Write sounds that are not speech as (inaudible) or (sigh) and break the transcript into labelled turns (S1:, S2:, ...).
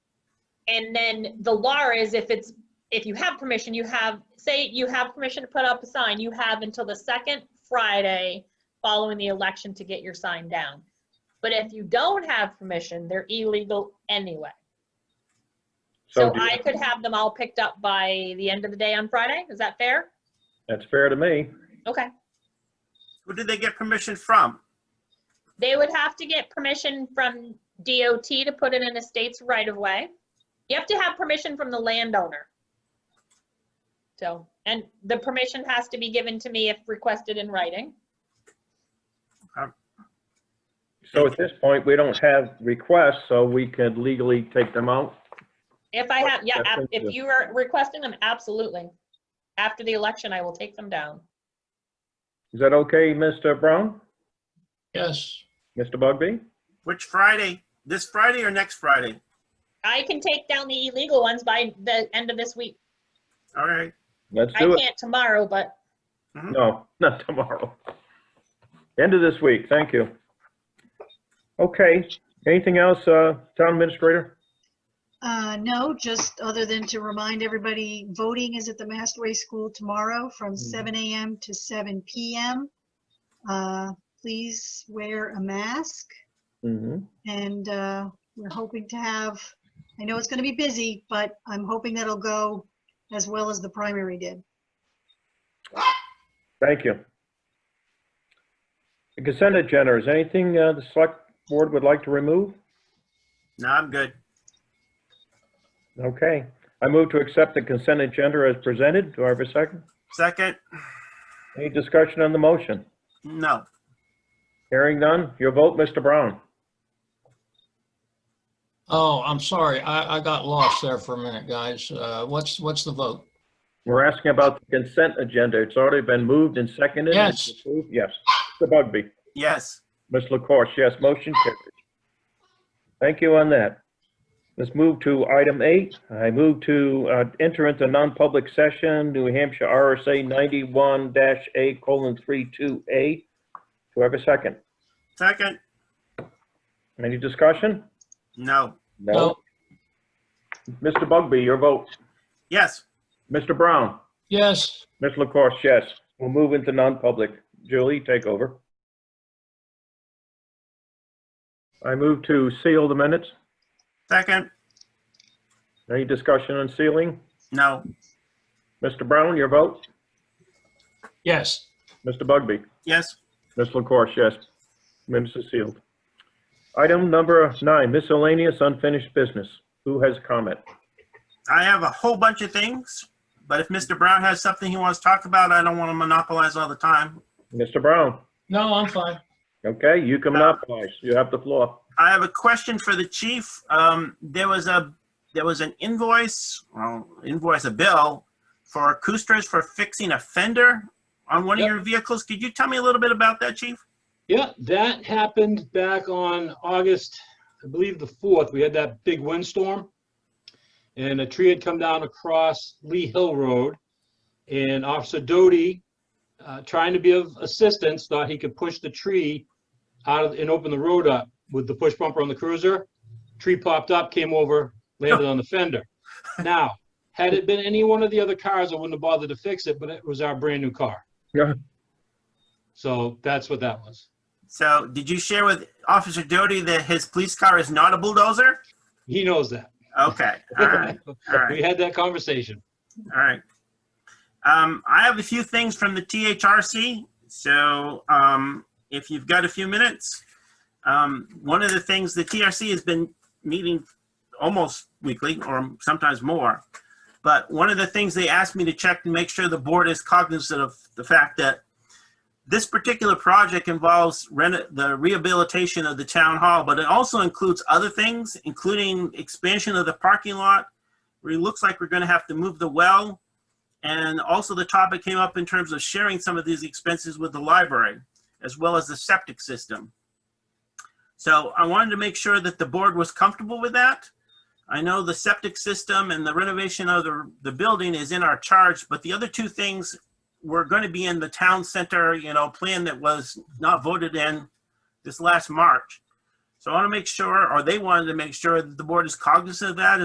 S1: And then the law is if it's, if you have permission, you have, say you have permission to put up a sign, you have until the second Friday following the election to get your sign down. But if you don't have permission, they're illegal anyway. So
S2: do you-
S1: I could have them all picked up by the end of the day on Friday. Is that fair?
S2: That's fair to me.
S1: Okay.
S3: Who did they get permission from?
S1: They would have to get permission from DOT to put it in a state's right of way. You have to have permission from the landowner. So, and the permission has to be given to me if requested in writing.
S2: So at this point, we don't have requests, so we could legally take them out.
S1: If I have, yeah, ab-
S2: Definitely.
S1: if you are requesting them, absolutely. After the election, I will take them down.
S2: Is that okay, Mr. Brown?
S4: Yes,
S2: Mr. Bugby?
S3: Which Friday? This Friday or next Friday?
S1: I can take down the illegal ones by the end of this week.
S3: All right.
S2: Let's
S1: I
S2: do it.
S1: can't tomorrow, but
S2: No, (laughs) not tomorrow. End of this week, thank you. Okay, anything else, uh, Town Administrator?
S5: Uh, no, just other than to remind everybody, voting is at the Mastway School tomorrow from seven AM to seven PM. Uh, please wear a mask
S2: Mm-hmm.
S5: and, uh, we're hoping to have, I know it's gonna be busy, but I'm hoping that'll go as well as the primary did.
S2: Thank you. The consent agenda, is anything uh, the Select Board would like to remove?
S3: No, I'm good.
S2: Okay, I move to accept the consent agenda as presented. Do I have a second?
S3: Second?
S2: Any discussion on the motion?
S3: No.
S2: Hearing none, your vote, Mr. Brown.
S4: oh, I'm sorry, I, I got lost there for a minute, guys. Uh, what's, what's the vote?
S2: We're asking about the consent agenda. It's already been moved and seconded.
S4: Yes.
S2: It's approved. Yes. Mr. Bugby?
S3: Yes.
S2: Ms. LaCourse, yes, motion carries. Thank you on that. Let's move to item eight. I move to uh, enter into non-public session, New Hampshire RSA 91-A colon 32A. Do I have a second?
S3: Second?
S2: Any discussion?
S3: No.
S4: No.
S2: Mr. Bugby, your vote.
S3: Yes.
S2: Mr. Brown?
S4: Yes,
S2: Ms. LaCourse, yes. We'll move into non-public. Julie, take over. I move to seal the minutes.
S3: Second?
S2: Any discussion on sealing?
S3: No.
S2: Mr. Brown, your vote?
S4: yes.
S2: Mr. Bugby?
S3: Yes.
S2: Ms. LaCourse, yes. Minutes are sealed. Item number nine, miscellaneous unfinished business. Who has comment?
S3: I have a whole bunch of things, but if Mr. Brown has something he wants to talk about, I don't want to monopolize all the time.
S2: Mr. Brown?
S4: No, I'm fine.
S2: Okay, you can monopolize. You have the floor.
S3: I have a question for the chief. Um, there was a, there was an invoice, well, invoice, a bill for Acustas for fixing a fender on one of
S6: Yep.
S3: your vehicles. Could you tell me a little bit about that, chief?
S6: Yeah, that happened back on August, I believe the 4th. We had that big windstorm. And a tree had come down across Lee Hill Road. And Officer Doty, uh, trying to be of assistance, thought he could push the tree out of- and open the road up with the push bumper on the cruiser. Tree popped up, came over, landed on the fender. Now, had it been any one of the other cars, I wouldn't have bothered to fix it, but it was our brand-new car.
S2: Yeah.
S6: So that's what that was.
S3: So did you share with Officer Doty that his police car is not a bulldozer?
S6: He knows that.
S3: Okay, all right, all right.
S6: (laughs) We had that conversation.
S3: All right. Um, I have a few things from the THRC. So um, if you've got a few minutes, um, one of the things the TRC has been meeting almost weekly or sometimes more. But one of the things they asked me to check to make sure the board is cognizant of the fact that this particular project involves reno- the rehabilitation of the town hall, but it also includes other things, including expansion of the parking lot, it looks like we're going to have to move the well. And also the topic came up in terms of sharing some of these expenses with the library, as well as the septic system. So I wanted to make sure that the board was comfortable with that. I know the septic system and the renovation of the, the building is in our charge, but the other two things were going to be in the town center, you know, plan that was not voted in this last March. So I want to make sure, or they wanted to make sure that the board is cognizant of that